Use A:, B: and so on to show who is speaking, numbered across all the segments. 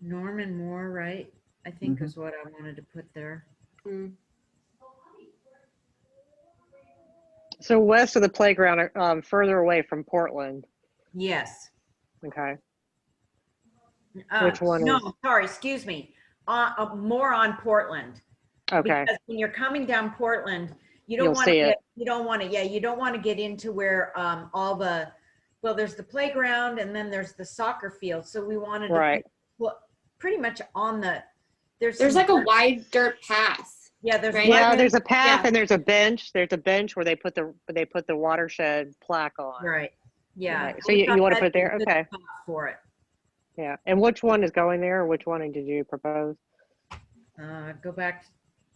A: Norman Moore, right? I think
B: Mm-hmm.
C: Mhm.
A: is what I wanted to put there.
B: So west of the playground, um, further away from Portland.
A: Yes.
B: Okay.
A: Uh,
B: Which one
A: No, sorry, excuse me. Uh, uh, more on Portland.
B: Okay.
A: Because when you're coming down Portland, you don't
B: You'll
A: want to,
B: see it.
A: get you don't want to, yeah, you don't want to get into where, um, all the, well, there's the playground and then there's the soccer field. So we wanted to put
B: Right.
A: pretty much on the, there's.
D: There's
A: some
D: like a
A: dirt-
D: wide dirt path.
A: Yeah, there's.
D: right?
A: one
B: Yeah,
A: there.
B: there's a path
D: Yeah.
B: and there's a bench. There's a bench where they put the, where they put the watershed plaque on.
A: Right, yeah.
B: Right, so
A: We
B: you-
A: thought
B: you wanna
A: that'd
B: put
A: be a
B: there?
A: good
B: Okay.
A: spot For it.
B: Yeah. And which one is going there? Which one did you propose?
A: Uh, go back,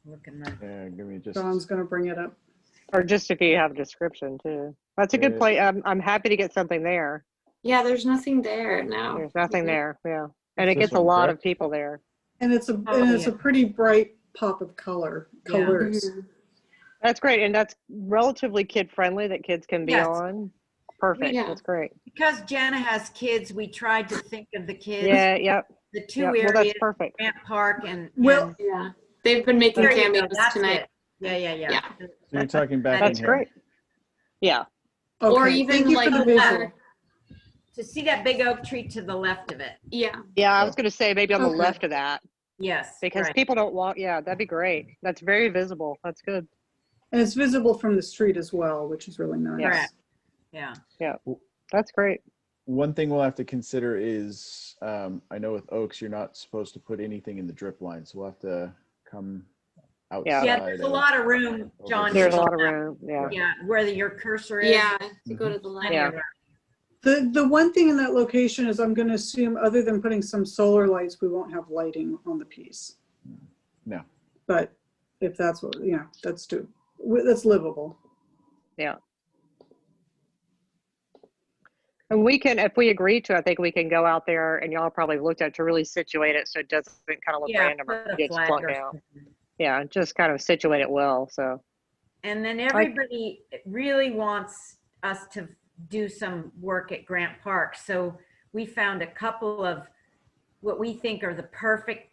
A: look in the,
C: Yeah, give me just,
E: Dawn's gonna bring it up.
B: Or just if you have a description too. That's a good
C: Uh,
B: play. I'm, I'm happy to get something there.
D: Yeah, there's nothing there
A: Oh,
D: now.
B: There's nothing
D: Mhm.
B: there. Yeah. And it
C: This
B: gets a
C: one,
B: lot
C: correct?
B: of people there.
E: And it's a, and
A: Oh,
E: it's a
A: yeah.
E: pretty bright pop of color,
A: Yeah. Mm-hmm.
E: colors.
B: That's great. And that's relatively kid friendly that kids can be
A: Yes.
B: on. Perfect.
D: Yeah.
B: That's great.
A: because Jana has kids, we tried to think of the kids,
B: Yeah. Yep.
A: the two
B: yep. Well, that's
A: areas,
B: perfect.
A: Grant Park and.
E: Well-
A: and-
D: Yeah, they've been making
A: There you go,
D: cameos
A: that's
D: tonight.
A: it. Yeah, yeah, yeah.
D: Yeah.
C: so you're talking back
B: That's great. Yeah.
D: Or
E: Okay,
D: even
E: thank you
D: like
E: for the
D: that.
E: visual.
A: To see that big oak tree to the left of it.
D: Yeah,
B: Yeah. I
C: Yeah.
B: was going to say maybe on the
E: Okay.
B: left of that
A: Yes.
B: because
A: right.
B: people don't walk. Yeah. That'd be great. That's very visible. That's good.
E: And it's visible from the street as well, which is really nice.
A: Correct. Yeah,
B: That's great.
C: One thing we'll have to consider is, um, I know with oaks, you're not supposed to put anything in the drip line, so we'll have to come outside.
A: yeah, there's a
C: of-
A: lot of room, John.
B: There's a
A: to-
B: lot of room. Yeah.
A: Yeah, whether your cursor is.
D: yeah, to go to the
A: on
D: left.
B: Yeah.
A: your right.
E: The, the one thing in that location is I'm gonna assume, other than putting some solar lights, we won't have lighting on the piece.
C: No.
E: But if that's what, you know, that's do, that's livable.
B: And we can, if we agree to, I think we can go out there and y'all probably looked at to really situate it so it doesn't kind of look
A: Yeah,
B: random or
A: put a
B: gets
A: flag
B: plucked
A: or
B: out.
A: something.
B: Yeah, just kind of situate it well. So
A: And then everybody really wants us to do some work at Grant Park. So we found a couple of what we think are the perfect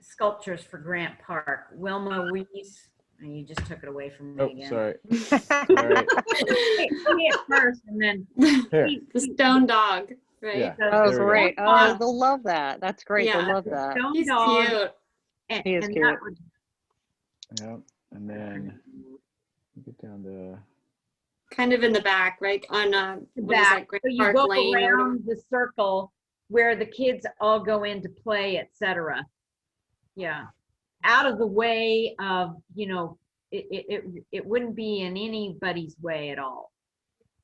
A: sculptures for Grant Park. Wilma Weiss, and you just took it away from me
C: Oh,
A: again.
C: sorry. Sorry.
A: Hey, me at first, and then
C: Here,
A: please,
D: The
A: please,
D: stone dog,
C: yeah.
D: right?
B: that
C: There
B: was
C: we go.
B: great.
D: Yeah.
B: Oh, they'll love that. That's great. They'll
D: Yeah.
B: love that.
A: stone
D: He's
A: dog,
D: cute.
A: and-
B: He is
A: and
B: cute.
A: that one.
C: Yeah, and then you get down to,
D: Kind of in the back, right? On, uh, what is
A: Back,
D: that,
A: so
D: Great
A: you
D: Park
A: go
D: Lane? or whatever.
A: around the circle where the kids all go in to play, et cetera. Yeah, out of the way of, you know, it, it, it, it wouldn't be in anybody's way at all.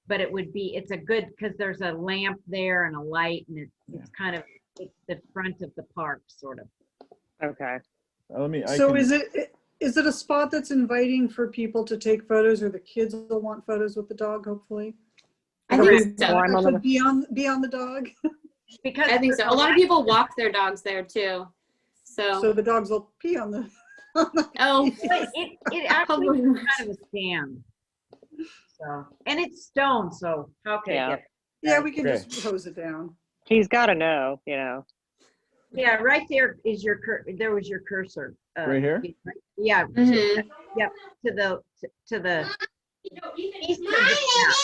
A: But it would be, it's a good, because there's a lamp there and a light and it- it's kind of, it's the front of the park, sort of.
B: Okay.
C: uh, let me, I
E: So
C: can-
E: is it, is it a spot that's inviting for people to take photos or the kids will want photos with the dog, hopefully?
D: I
B: Correct.
D: think so.
B: Climb on the-
E: Actually, Be on, be on the dog,
A: Because
D: I think so. A lot of people walk their dogs there too.
E: so
D: So,
E: the dogs will pee on the, on the
D: oh,
A: But It, it actually
D: probably
A: was
D: not.
A: kind of a scam. So, and it's stone, so how could it
B: Yeah.
A: get
E: Yeah, we can
C: Okay.
E: just hose it down.
B: He's got to know, you know.
A: Yeah, right there is your cur, there was your cursor. uh,
C: Right here?
A: Yeah, to
D: Mhm.
A: the, to- to the, east of the map.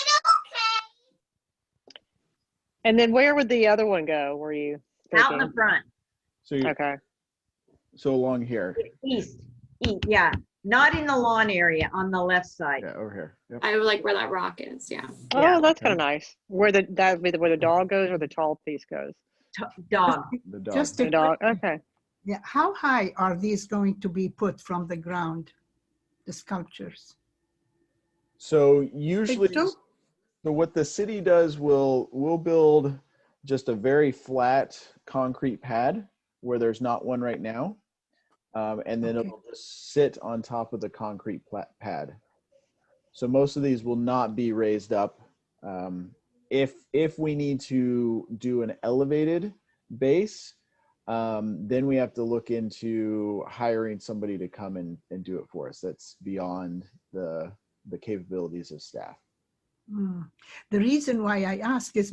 B: And then where would the other one go? Were you
A: out in the
B: thinking?
A: front,
C: so you,
B: Okay.
C: so along here,
A: east, east, yeah, not in the lawn area, on the left side.
C: yeah, over here. Yep.
D: I like where that rock is. Yeah.
A: Yeah.
B: Oh, that's kind of nice. Where the that would be the, where the dog goes or the tall piece goes.
A: T- Dog,
C: The dog.
F: Just
B: The
F: a
B: dog. Okay.
F: Yeah, how high are these going to be put from the ground, the sculptures?
C: So usually,
E: don't-
C: so what the city does will will build just a very flat concrete pad where there's not one right now, um, and then
F: Okay.
C: it'll just sit on top of the concrete pla- pad. So most of these will not be raised up. Um, if if we need to do an elevated base, um, then we have to look into hiring somebody to come and, and do it for us. That's beyond the the capabilities of staff.
F: Hmm. The reason why I ask is